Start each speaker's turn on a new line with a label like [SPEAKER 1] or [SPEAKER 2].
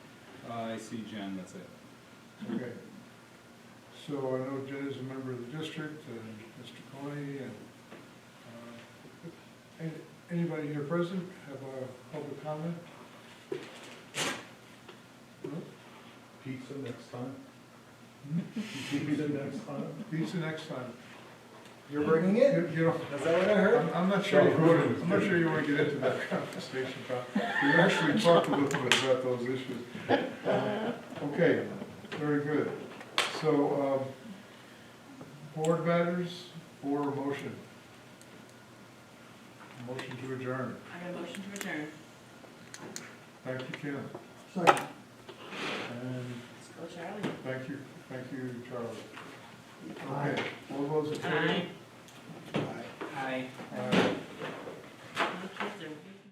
[SPEAKER 1] Uh, I see Jen, that's it.
[SPEAKER 2] Okay. So I know Jed is a member of the district, and Mr. Coney, and, uh, an- anybody here present have a public comment?
[SPEAKER 3] Pizza next time? Pizza next time?
[SPEAKER 2] Pizza next time.
[SPEAKER 4] You're bringing it?
[SPEAKER 2] You you don't,
[SPEAKER 4] Is that what I heard?
[SPEAKER 2] I'm, I'm not sure, you wanna- I'm not sure you wanna get into that conversation, but we actually talked a little bit about those issues. Uh, Okay, very good. So, um, board matters or a motion? Motion to adjourn.
[SPEAKER 5] I got a motion to adjourn.
[SPEAKER 2] Thank you, Ken.
[SPEAKER 4] Second.
[SPEAKER 2] And
[SPEAKER 5] Let's go, Charlie.
[SPEAKER 2] thank you, thank you, Charlie.
[SPEAKER 4] Aye.
[SPEAKER 2] Okay, all those in favor?
[SPEAKER 5] Aye.
[SPEAKER 4] Aye.
[SPEAKER 2] Aye.
[SPEAKER 5] My kids are.